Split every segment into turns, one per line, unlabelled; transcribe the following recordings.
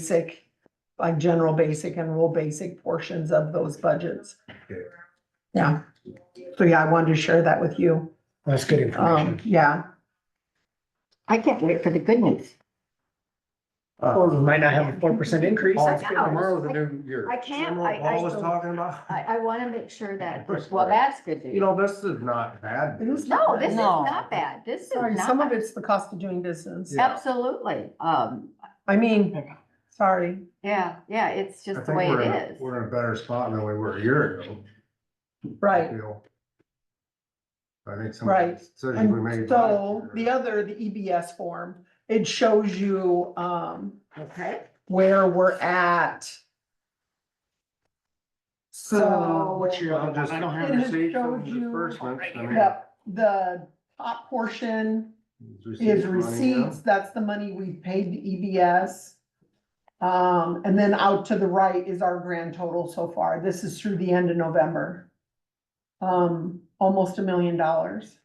basic, like general basic and rural basic portions of those budgets.
Okay.
Yeah, so yeah, I wanted to share that with you.
That's good
Um,
information.
yeah,
I can't wait for the good news.
oh,
Uh, we might not have a four percent increase.
Oh,
It's good
no.
Tomorrow's a new year.
I can't,
Remember
I,
what Paul was
I,
talking about?
I, I want to make sure that, well, that's good
You
news.
know, this is not bad.
It is not-
No, this is
No.
not bad. This is
sorry, some of
not,
it's the cost of doing business.
Yeah.
absolutely. Um,
I mean, sorry,
yeah, yeah, it's
I
just the
think
way
we're in,
it
a-
is.
we're in a better spot than we were a year ago. I
right.
feel. I think some of the
Right.
decisions we
And
made.
so
last
the
year-
other, the EBS form, it shows you, um,
Okay.
where we're at.
So,
So,
Which you, I don't have
It has
receipts
showed
and
you-
disbursements. I mean,
yep, the top portion
it's receipts
is
money, yeah.
receipts, that's the money we paid to EBS. Um, and then out to the right is our grand total so far. This is through the end of November. Um, almost a million dollars.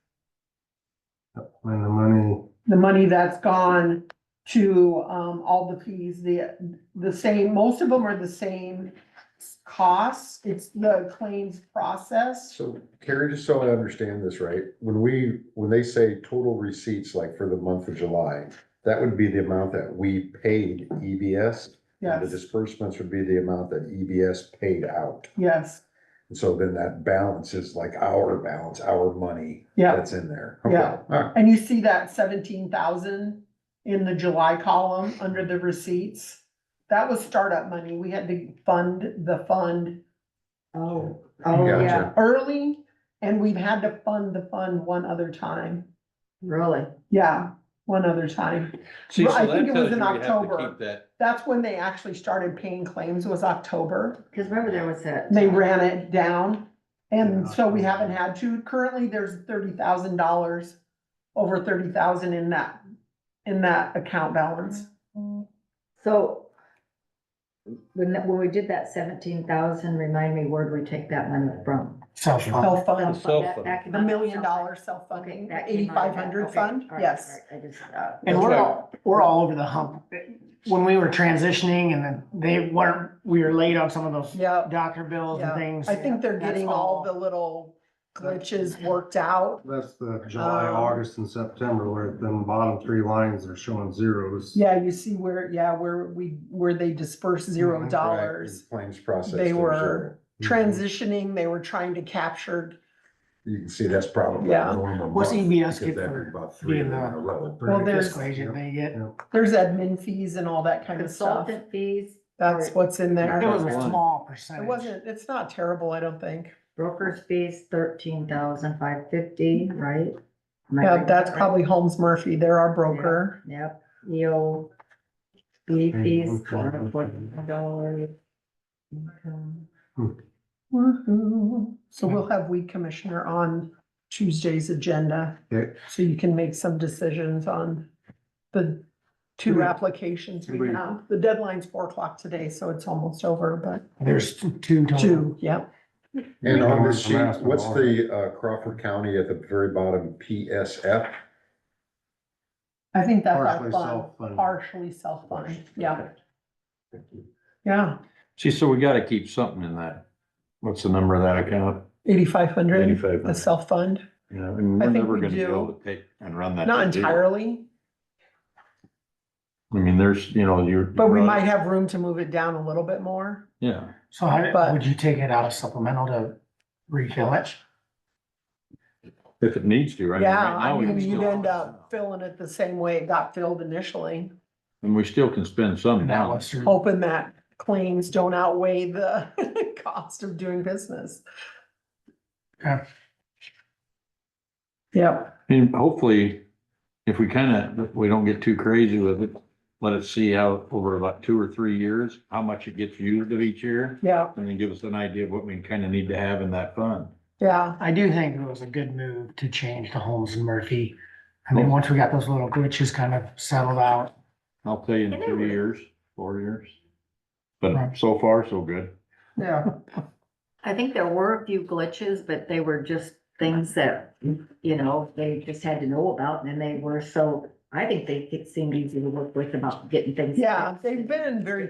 And the money,
The money that's gone to, um, all the fees, the, the same, most of them are the same costs. It's the claims process.
So Carrie, just so I understand this right, when we, when they say total receipts, like for the month of July, that would be the amount that we paid E EBS. and The
Yes,
disbursements would be the amount that EBS paid out.
yes,
And so then that balance is like our balance, our money
yeah.
that's in there. Okay,
Yeah.
all right.
And you see that seventeen thousand in the July column under the receipts? That was startup money. We had to fund the fund
Oh, oh,
Gotcha.
yeah,
early and we've had to fund the fund one other time.
really.
Yeah, one other time.
See,
Well, I
so that
think it was
tells you
in
we have to
October.
keep that.
That's when they actually started paying claims was October.
Because remember there was that.
They ran it down. And so we haven't had to. Currently, there's thirty thousand dollars, over thirty thousand in that, in that account balance.
So when, that- when we did that seventeen thousand, remind me, where do we take that money from?
Self,
Self fund,
Self
That-
fund.
that came
the
out of
million
self-
dollar self
Okay,
funding,
that
the
came out of
eighty-five
that.
hundred
Okay,
fund,
all right,
yes.
all right, I just, uh,
and we're
That's
all, we're all over the hump. When we were transitioning and then they weren't, we were late on some of those
Yeah,
doctor bills
Yeah.
and things.
I think they're
That's
getting all the little glitches worked out.
that's the July,
Um,
August and September where then bottom three lines are showing zeros.
Yeah, you see where, yeah, where we, where they dispersed
Mm-hmm.
Mhm,
zero
right. Mm-hmm.
dollars.
Claims process.
They
there's a-
were Transitioning, they were trying to capture,
Mm-hmm. You can see that's probably.
Yeah.
What's EBS
Because
get
that
for
would be about three of
being
them in
the-
a row.
Well, there's-
Disclosure they get.
there's admin fees and all that kind of stuff.
Consultant fees,
That's what's in there.
It was a
One.
small
It
percentage.
wasn't, it's not terrible, I don't think.
broker's fees, thirteen thousand five fifty, right? Am I
Yeah,
reading
that's
that right?
probably Holmes Murphy, they're our broker.
Yep, EO. B fees,
okay.
four hundred forty dollars.
Woohoo. So we'll have weed commissioner on Tuesday's agenda.
Okay.
So you can make some decisions on the two
Right.
applications we
Right.
have. The deadline's four o'clock today, so it's almost over, but
There's two total.
two, yep.
And on this
Yeah, I'm
sheet,
asking
what's
all
the uh, Crawford County at the very bottom, PSF?
I think that's our
Partially
fund,
self-funded.
partially self-funded, yeah, yeah,
See, so we gotta keep something in that. What's the number of that account?
eighty-five hundred, the
Eighty-five hundred.
self-fund,
You know, and
I
we're
think
never
we
gonna be
do.
able to take and run that.
not
to zero.
entirely,
I mean, there's, you know, you're.
but we
you're-
might have room to move it down a little bit more.
Yeah,
So how,
But-
would you take it out of supplemental to refill it?
if it needs to, right?
Yeah,
Right now,
I
we can
mean, you'd
still-
end up filling it the same way it got filled initially.
And we still can spend some
And that
now.
was through.
hoping that claims don't outweigh the cost of doing business.
Okay.
Yep,
And hopefully, if we kinda, if we don't get too crazy with it, let it see how, over about two or three years, how much it gets used of each year.
yeah,
And then give us an idea of what we kinda need to have in that fund.
yeah,
I do think it was a good move to change to Holmes and Murphy. I mean, once we got those little glitches kind of settled out,
I'll tell you in
And they
two
were-
years, four years.
Right.
But so far, so good.
yeah,
I think there were a few glitches, but they were just things that, you know, they just had to know about and they were so I think they seemed easy to work with about getting things.
Yeah,
fixed.
they've been very